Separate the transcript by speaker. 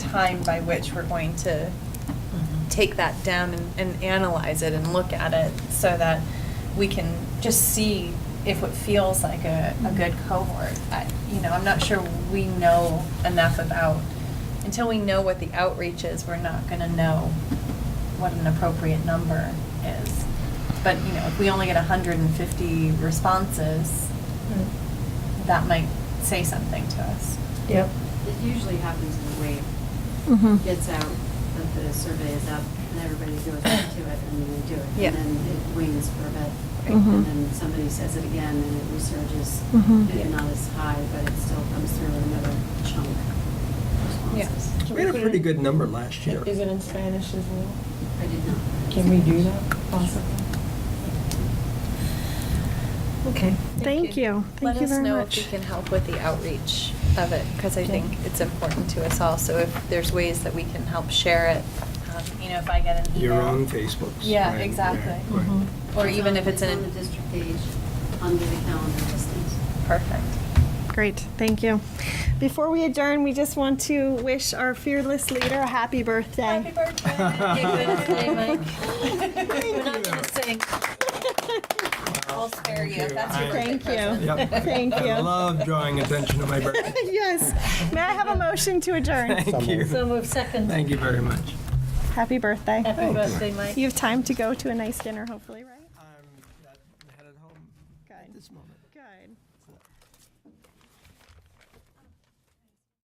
Speaker 1: time by which we're going to take that down and- and analyze it and look at it so that we can just see if it feels like a, a good cohort. I- You know, I'm not sure we know enough about, until we know what the outreach is, we're not gonna know what an appropriate number is. But, you know, if we only get hundred and fifty responses, that might say something to us.
Speaker 2: Yep.
Speaker 3: It usually happens in the wave.
Speaker 4: Mm-hmm.
Speaker 3: Gets out, that the survey is up, and everybody goes back to it, and then they do it.
Speaker 1: Yeah.
Speaker 3: And then it wanes for a bit.
Speaker 1: Right. Mm-hmm.
Speaker 3: And
Speaker 4: Mhm.
Speaker 3: then somebody says it again, and it resurges.
Speaker 4: Mhm.
Speaker 3: Maybe not as high, but it still comes through another chunk of
Speaker 1: Yeah.
Speaker 3: responses.
Speaker 5: We had a pretty good number last year.
Speaker 2: Is it in Spanish as well?
Speaker 3: I did not.
Speaker 2: Can we do that possibly? Okay.
Speaker 4: Thank you. Thank you very
Speaker 1: Let us know if we
Speaker 4: much.
Speaker 1: can help with the outreach of it, because I think
Speaker 2: Okay.
Speaker 1: it's important to us all. So if there's ways that we can help share it, um, you know, if I get an email.
Speaker 5: Your own Facebooks.
Speaker 1: Yeah,
Speaker 5: right,
Speaker 1: exactly.
Speaker 5: right, right.
Speaker 2: Mhm.
Speaker 1: Or
Speaker 3: It's
Speaker 1: even
Speaker 3: on-
Speaker 1: if it's
Speaker 3: on the
Speaker 1: in,
Speaker 3: district page, under the calendar listings.
Speaker 1: perfect.
Speaker 4: Great, thank you. Before we adjourn, we just want to wish our fearless leader a happy birthday.
Speaker 1: Happy birthday. Yeah, good day, Mike. We're not going to sing. I'll spare you.
Speaker 5: Thank you.
Speaker 1: That's your
Speaker 4: Thank
Speaker 1: birthday
Speaker 4: you.
Speaker 1: present.
Speaker 5: Yep.
Speaker 4: Thank
Speaker 5: I
Speaker 4: you.
Speaker 5: love drawing attention to my birthday.
Speaker 4: Yes. May I have a motion to adjourn?
Speaker 5: Thank you.
Speaker 2: move second.
Speaker 5: Thank Oh, you very much.
Speaker 4: Happy birthday.
Speaker 1: Happy birthday, Mike.
Speaker 4: You have time to go to a nice dinner, hopefully, right?
Speaker 5: I'm headed home
Speaker 4: Good.
Speaker 5: this moment.